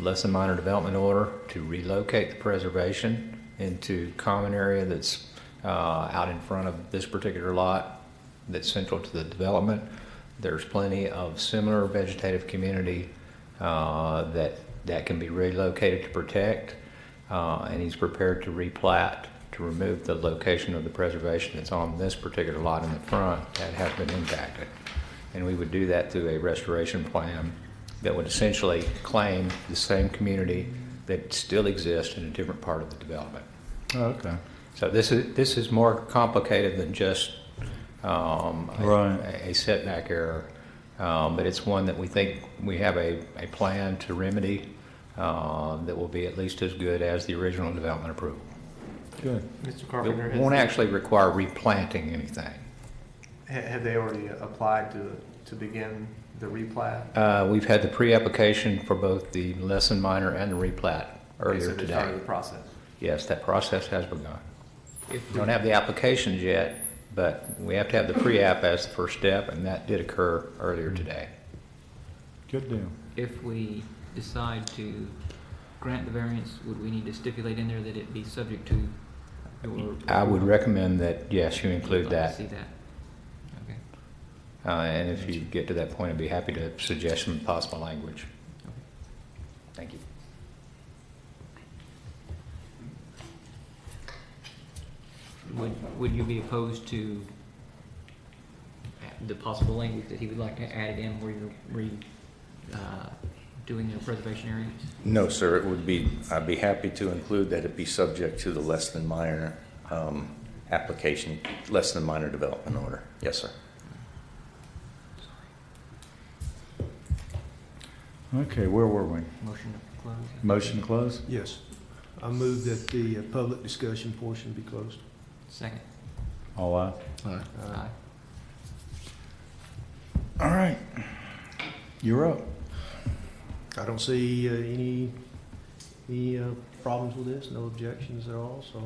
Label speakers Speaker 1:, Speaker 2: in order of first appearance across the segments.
Speaker 1: lesson minor development order to relocate the preservation into common area that's uh, out in front of this particular lot that's central to the development. There's plenty of similar vegetative community uh, that, that can be relocated to protect. uh, And he's prepared to replat to remove the location of the preservation that's on this particular lot in the front that has been impacted. And we would do that through a restoration plan that would essentially claim the same community that still exists in a different part of the development.
Speaker 2: Oh, Okay.
Speaker 1: So this is, this is more complicated than just um, a-
Speaker 2: Right.
Speaker 1: a setback error, Um, but it's one that we think we have a, a plan to remedy uh, that will be at least as good as the original development approval.
Speaker 2: Good.
Speaker 3: Mr. Carpenter,
Speaker 1: It won't
Speaker 3: has,
Speaker 1: actually require replanting anything.
Speaker 3: ha- have they already applied to, to begin the replat?
Speaker 1: Uh, We've had the pre-application for both the lesson minor and the replat
Speaker 3: Okay, so
Speaker 1: earlier
Speaker 3: they started
Speaker 1: today.
Speaker 3: the process.
Speaker 1: Yes, that process has begun. We Don't have the applications yet, but we have to have the pre-app as the first step, and that did occur earlier today.
Speaker 2: Good deal.
Speaker 4: If we decide to grant the variance, would we need to stipulate in there that it be subject to your?
Speaker 1: I would
Speaker 4: approval?
Speaker 1: recommend that, yes, you
Speaker 4: I'd
Speaker 1: include
Speaker 4: like to
Speaker 1: that.
Speaker 4: See that? Okay,
Speaker 1: Uh, And if you get to that point, I'd be happy to suggest some possible language.
Speaker 4: okay.
Speaker 1: Thank you.
Speaker 4: Would, would you be opposed to the possible language that he would like to add it in where you're re, uh, doing your preservation areas?
Speaker 5: No, sir, it would be, I'd be happy to include that it be subject to the less than minor um, application, less than minor development order. Yes, sir.
Speaker 2: Okay, where were we?
Speaker 4: Motion to close?
Speaker 2: Motion to close?
Speaker 6: Yes. I move that the uh, public discussion portion be closed.
Speaker 4: Second. Uh,
Speaker 2: All aye.
Speaker 4: Aye.
Speaker 2: All right. You're up.
Speaker 6: I don't see uh, any, any uh, problems with this, no objections at all, so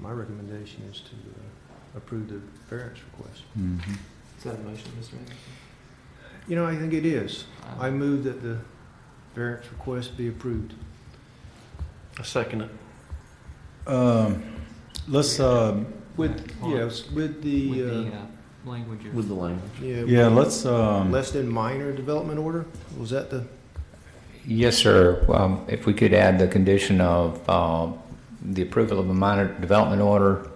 Speaker 6: my recommendation is to uh, approve the variance request.
Speaker 2: Mhm.
Speaker 3: Is that a motion, Mr. Anderson?
Speaker 6: You know, I think it is.
Speaker 4: Aye.
Speaker 6: I move that the variance request be approved.
Speaker 3: I second it.
Speaker 2: Um, Let's, um,
Speaker 6: With, yes, with
Speaker 4: uh, With the,
Speaker 6: the,
Speaker 4: uh, language of.
Speaker 5: the language.
Speaker 6: uh, yeah,
Speaker 2: yeah, let's, um,
Speaker 6: less than minor development order? Was that the?
Speaker 1: Yes, sir. Um, If we could add the condition of uh, the approval of a minor development order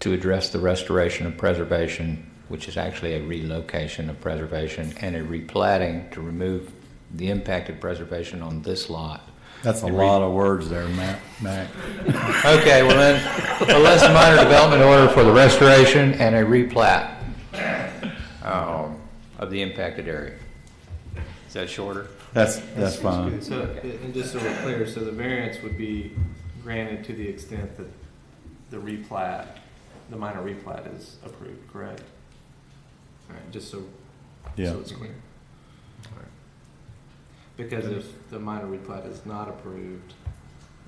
Speaker 1: to address the restoration of preservation, which is actually a relocation of preservation, and a replatting to remove the impacted preservation on this lot.
Speaker 2: that's a lot of words there, Matt, Mac.
Speaker 1: Okay, well then, a less minor development order for the restoration and a replat um, of the impacted area. Is that shorter?
Speaker 2: That's, that's fine.
Speaker 3: So, and just so we're clear, so the variance would be granted to the extent that the replat, the minor replat is approved, correct? All right, just so,
Speaker 2: Yeah.
Speaker 3: so it's clear. All right. Because if the minor replat is not approved,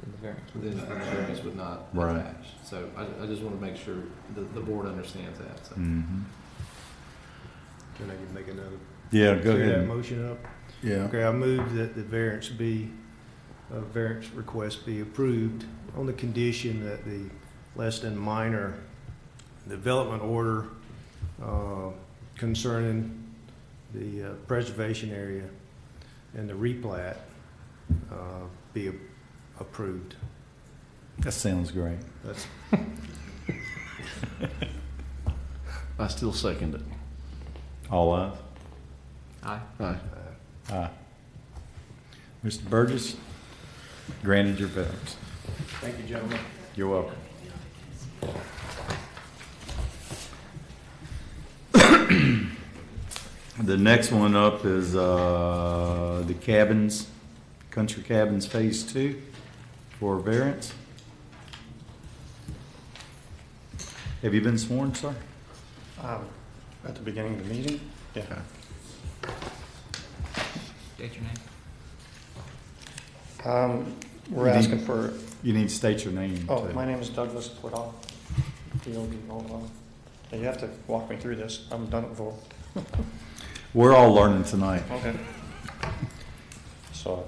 Speaker 4: In the variance.
Speaker 3: then the variance would not
Speaker 2: Right.
Speaker 3: attach. So I, I just want to make sure the, the board understands that, so.
Speaker 2: Mhm.
Speaker 6: Can I make another?
Speaker 2: Yeah, go
Speaker 6: clear that
Speaker 2: ahead.
Speaker 6: Motion up?
Speaker 2: Yeah.
Speaker 6: Okay, I move that the variance be, uh, variance request be approved on the condition that the less than minor development order uh, concerning the uh, preservation area and the replat uh, be a- approved.
Speaker 2: That sounds great.
Speaker 6: That's,
Speaker 7: I still second it.
Speaker 2: All ayes?
Speaker 4: Aye.
Speaker 7: Aye.
Speaker 6: uh,
Speaker 2: Aye. Mr. Burgess, granted your variance.
Speaker 6: Thank you, gentlemen.
Speaker 2: You're welcome. The next one up is uh, the cabins, Country Cabins Phase Two for variance. Have you been sworn, sir?
Speaker 8: Um, At the beginning of the meeting? Yeah.
Speaker 4: State your name.
Speaker 8: Um, We're
Speaker 2: You need-
Speaker 8: asking for,
Speaker 2: You need to state your name.
Speaker 8: oh,
Speaker 2: too.
Speaker 8: my name is Douglas Plodoff, D-O-D-O-L. You have to walk me through this. I'm done at all.
Speaker 2: We're all learning tonight.
Speaker 8: Okay. So